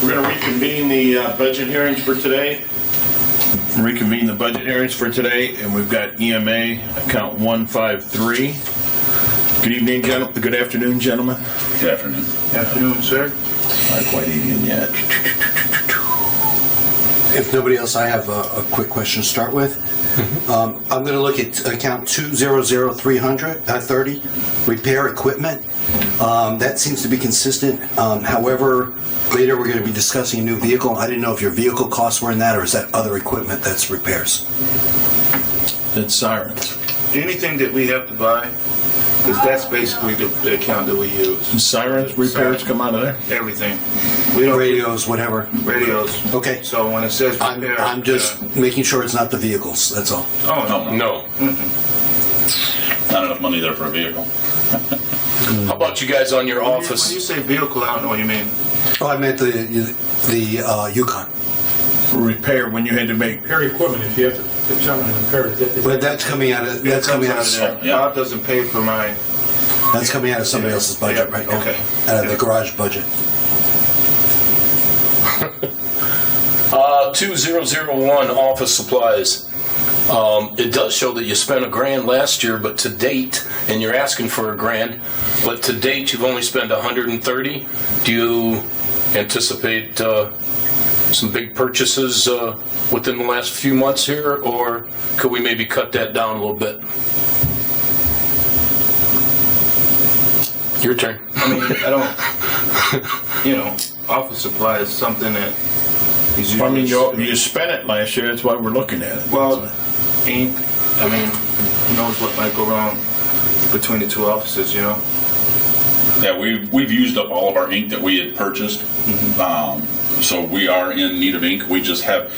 convene the uh, budget hearings for today. Reconvene the budget hearings for today, and we've got EMA account 153. Good evening, gentlemen. Good afternoon, gentlemen. Good afternoon. Afternoon, sir. Not quite evening yet. If nobody else, I have a, a quick question to start with. Um, I'm going to look at account 200300, uh, 30, repair equipment. Um, that seems to be consistent. Um, however, later we're going to be discussing a new vehicle. I didn't know if your vehicle costs were in that or is that other equipment that's repairs? That's sirens. Anything that we have to buy, because that's basically the the account that we use. Sirens repairs come out of there? Everything. We don't, Radios, whatever. radios. Okay. So when it says I'm, repair. I'm just uh, making sure it's not the vehicles, that's all. Oh, no. No. Not enough money there for a vehicle. How about you guys on your When you- When office? you say vehicle, I don't know what you mean. Oh, I meant the, the uh, Yukon. Repair when you had to make, repair equipment, if you have to determine and repair it. that- But that's coming out of, that's coming out of there. Yeah. Bob doesn't pay for my, That's coming out of somebody else's budget Yeah, right now. okay. Out of the garage budget. Uh, 2001 office supplies. Um, it does show that you spent a grand last year, but to date, and you're asking for a grand, but to date you've only spent 130. Do you anticipate uh, some big purchases uh, within the last few months here, or could we maybe cut that down a little bit? Your turn. I mean, I don't, you know, office supply is something that is usually. I mean, you, you spent it last year, that's why we're looking at it. Well, ink, I mean, who knows what might go wrong between the two offices, you know? Yeah, we, we've used up all of our ink that we had purchased. Um, so we are in need of ink. We just have,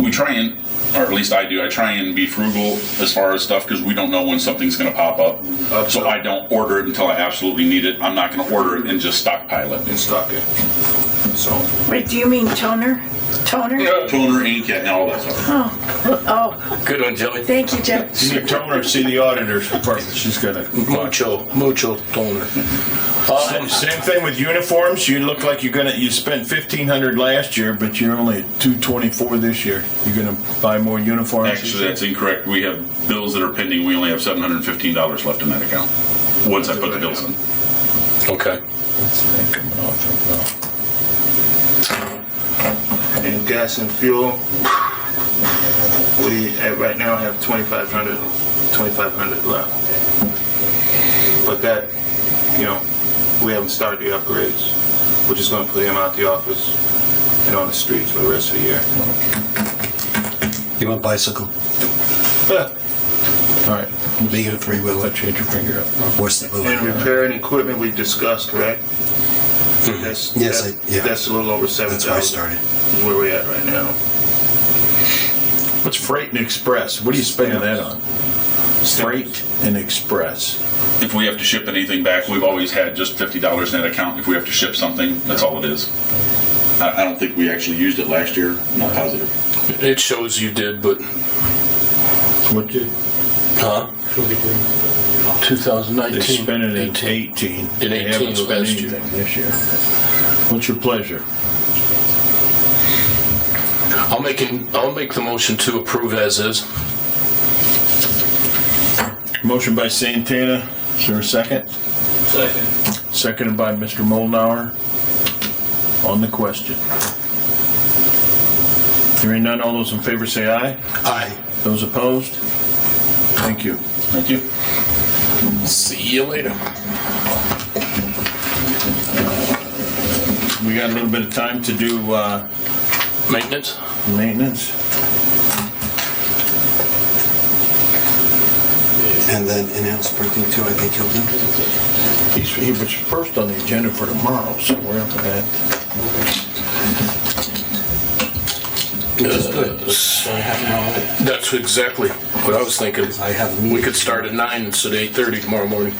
we try and, or at least I do, I try and be frugal as far as stuff because we don't know when something's going to pop up. So I don't order it until I absolutely need it. I'm not going to order it and just stockpile it. and stock it. So, Wait, do you mean toner? Toner? Toner, ink, and all that stuff. Oh, Good one, Joey. thank you, Jeff. See, tell her, see the auditor's department, she's gonna. Mucho, mucho toner. Uh, Same thing with uniforms. You look like you're gonna. You spent fifteen hundred last year, but you're only at two twenty four this year. You're gonna buy more uniforms. Actually, that's incorrect. We have bills that are pending. We only have seven hundred and fifteen dollars left in that account, once I put the bills in. okay. and gas and fuel, we at right now have 2,500, 2,500 left. But that, you know, we haven't started the upgrades. We're just gonna put him out the office and on the streets for the rest of the year. You want bicycle? All right, Make it a three wheeler. let you hit your finger up. What's the And move? repair and equipment we discussed, correct? That's- Mm-hmm. Yes, that- I- yeah. That's a little over That's where I 7,000, started. is where we're at right now. What's freight and express? What are you spending that on? Freight and express. If we have to ship anything back, we've always had just fifty dollars in that account. If we have to ship something, that's all it is. I, I don't think we actually used it last year. I'm Not positive. It shows you did, but What did huh? they 2019. spent it in eighteen? In They 18 haven't spent last year. anything this year. What's your pleasure? I'll make an, I'll make the motion to approve as is. Motion by Santana. Is there a second? Second. Seconded by Mr. Molnauer. On the question. Hearing none, all those in favor say aye. Aye. Those opposed? Thank you. Thank you. See you later. We got a little bit of time to do uh, Maintenance. maintenance. And then in-house printing too, I think he'll do. He's- He was first on the agenda for tomorrow, so we're up to that. That's exactly what I was thinking. I have a We meeting. could start at nine instead of eight thirty tomorrow morning.